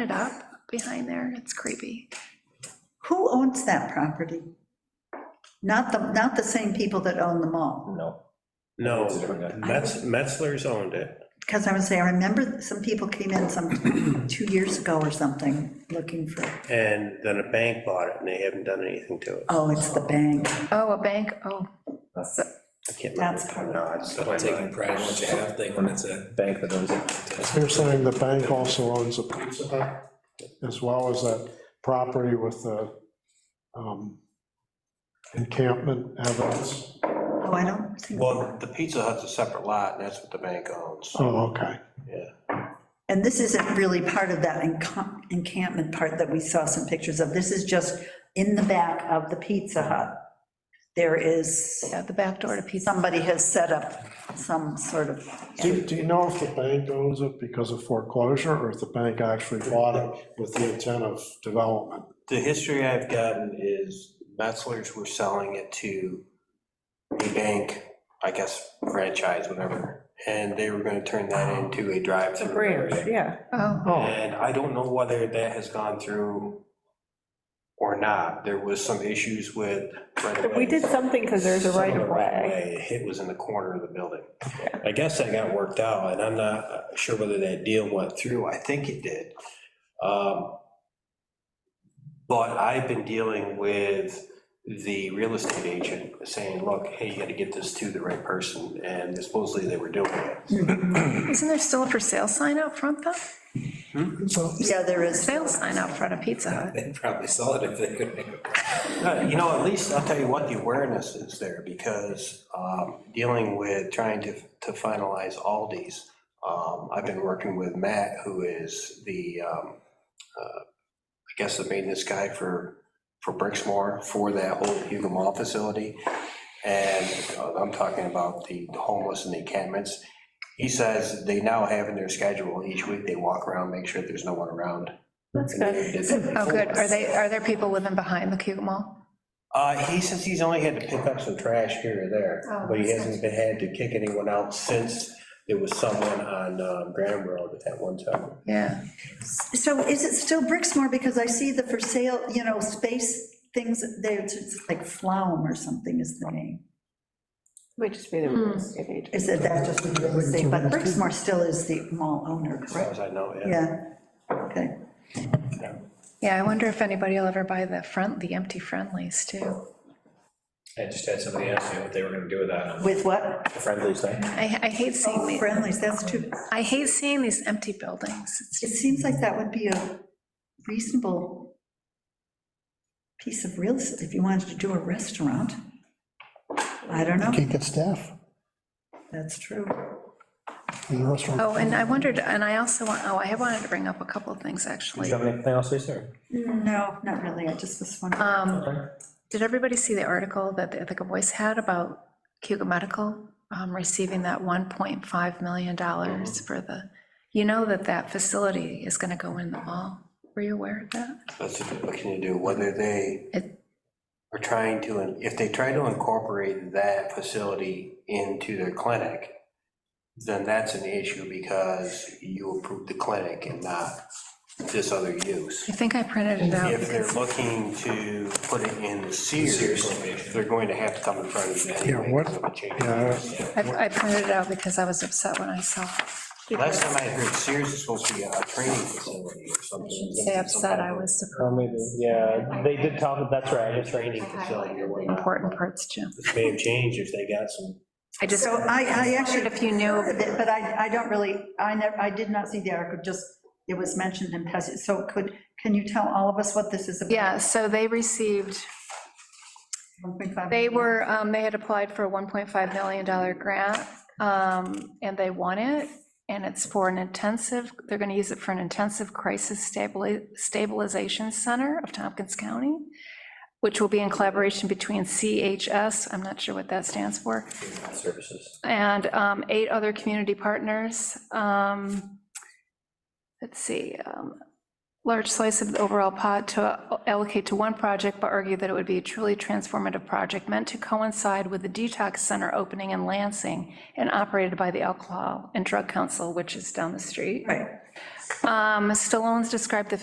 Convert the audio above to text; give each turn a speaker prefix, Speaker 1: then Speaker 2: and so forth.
Speaker 1: it up behind there. It's creepy.
Speaker 2: Who owns that property? Not the, not the same people that own the mall,
Speaker 3: No.
Speaker 4: No,
Speaker 3: It's a different guy.
Speaker 4: Metz- Metzler's owned it.
Speaker 2: because I would say, I remember some people came in some, two years ago or something, looking for,
Speaker 4: And then a bank bought it, and they haven't done anything to it.
Speaker 2: oh, it's the bank.
Speaker 1: Oh, a bank, oh. So-
Speaker 4: I can't remember.
Speaker 2: That's part of it.
Speaker 4: No, it's-
Speaker 5: Taking pride in what you have thing when it's a.
Speaker 3: Bank that owns it.
Speaker 6: They're saying the bank also owns a pizza hut, as well as that property with the um, encampment evidence.
Speaker 2: Oh, I don't think,
Speaker 4: Well, the Pizza Hut's a separate lot, and that's what the bank owns.
Speaker 6: Oh, okay.
Speaker 2: and this isn't really part of that encamp- encampment part that we saw some pictures of. This is just in the back of the Pizza Hut. There is,
Speaker 1: Yeah, the back door to Pizza.
Speaker 2: somebody has set up some sort of,
Speaker 6: Do do you know if the bank owns it because of foreclosure, or if the bank actually bought it with the intent of development?
Speaker 4: The history I've gotten is Metzler's were selling it to a bank, I guess franchise, whatever, and they were gonna turn that into a
Speaker 7: It's a
Speaker 4: drive-through
Speaker 7: branch,
Speaker 4: area.
Speaker 7: yeah.
Speaker 1: Oh,
Speaker 6: Oh,
Speaker 4: And I don't know whether that has gone through or not. There was some issues with. right-of-ways.
Speaker 7: We did something because there's a
Speaker 4: Some
Speaker 7: right
Speaker 4: the
Speaker 7: of way.
Speaker 4: right-of-way, It was in the corner of the building. I guess that got worked out, and I'm not sure whether that deal went through. I think it did. Um, But I've been dealing with the real estate agent saying, look, hey, you gotta get this to the right person, and supposedly they were doing it.
Speaker 1: isn't there still a for sale sign out front though?
Speaker 6: so
Speaker 2: yeah, there is.
Speaker 1: Sale sign out front of Pizza Hut.
Speaker 5: They'd probably sell it if they could make it.
Speaker 4: Uh, You know, at least, I'll tell you what, the awareness is there, because um, dealing with, trying to to finalize Aldi's, um, I've been working with Matt, who is the, um, uh, I guess, the maintenance guy for, for Bricksmore, for that whole Hugo Mall facility. And uh, I'm talking about the homeless and the encampments. He says they now have in their schedule, each week they walk around, make sure there's no one around.
Speaker 7: That's
Speaker 4: And they
Speaker 7: good.
Speaker 4: did that
Speaker 1: Oh, good.
Speaker 4: before.
Speaker 1: Are they, are there people living behind the Cuba Mall?
Speaker 4: Uh, he says he's only had to pick up some trash here or there,
Speaker 1: Oh,
Speaker 4: but he
Speaker 1: that's
Speaker 4: hasn't been had to kick anyone out since there was someone on um, Graham Road at that one time.
Speaker 1: Yeah.
Speaker 2: So is it still Bricksmore? Because I see the for sale, you know, space things, they're just like Flaum or something is the name.
Speaker 7: Might just be the real estate agent.
Speaker 2: Is it that just real estate? But Bricksmore still is the mall owner,
Speaker 4: As far
Speaker 2: correct?
Speaker 4: as I know, yeah.
Speaker 2: Yeah, okay.
Speaker 1: Yeah, I wonder if anybody will ever buy the front, the empty friendlies too.
Speaker 5: I just had somebody ask me what they were gonna do with that. um,
Speaker 2: With what?
Speaker 3: Friendly thing.
Speaker 1: I, I hate seeing the,
Speaker 2: Friendlies, that's too,
Speaker 1: I hate seeing these empty buildings. It's
Speaker 2: it
Speaker 1: just,
Speaker 2: seems like that would be a reasonable piece of real estate if you wanted to do a restaurant. I don't know,
Speaker 6: can't get staff
Speaker 2: that's true.
Speaker 6: in the restaurant.
Speaker 1: oh, and I wondered, and I also want, oh, I wanted to bring up a couple of things
Speaker 3: Do
Speaker 1: actually.
Speaker 3: you have anything else, Lisa? or-
Speaker 2: No, not really, I just was wondering.
Speaker 1: Um,
Speaker 3: Okay.
Speaker 1: Did everybody see the article that the Ithaca Voice had about Cuba Medical um, receiving that $1.5 million for the, you know that that facility is going to go in the mall? Were you aware of that?
Speaker 4: That's what can you do, whether they
Speaker 1: It-
Speaker 4: are trying to, if they try to incorporate that facility into their clinic, then that's an issue because you approved the clinic and not this other use.
Speaker 1: I think I printed it out.
Speaker 4: If they're looking to put it in the Sears, they're going to have to come in front of you anyway.
Speaker 6: Yeah, what-
Speaker 4: 'cause of the change.
Speaker 6: Yeah.
Speaker 1: I I printed it out because I was upset when I saw. it.
Speaker 4: Last time I heard Sears is supposed to be a training facility or something.
Speaker 1: Say upset, I was
Speaker 3: Or maybe, yeah, they did tell me, that's right,
Speaker 4: A
Speaker 3: it's right.
Speaker 4: training facility or whatnot.
Speaker 1: important parts, Jim.
Speaker 4: This may have changed if they got some
Speaker 1: I just,
Speaker 2: So I, I actually.
Speaker 1: wondered if you knew.
Speaker 2: But I, I don't really, I never, I did not see the article, just, it was mentioned in passing. So could, can you tell all of us what this is about?
Speaker 1: Yeah, so they received
Speaker 2: 1.5
Speaker 1: They
Speaker 2: million?
Speaker 1: were, um, they had applied for a $1.5 million grant, um, and they won it, and it's for an intensive, they're going to use it for an intensive crisis stabili- stabilization center of Tompkins County, which will be in collaboration between CHS, I'm not sure what that stands for,
Speaker 3: Services.
Speaker 1: and um, eight other community partners. Um, Let's see, um, large slice of the overall pot to allocate to one project, but argue that it would be a truly transformative project meant to coincide with the detox center opening in Lansing and operated by the Alcohol and Drug Council, which is down the street.
Speaker 2: Right,
Speaker 1: Um, Stallone's described the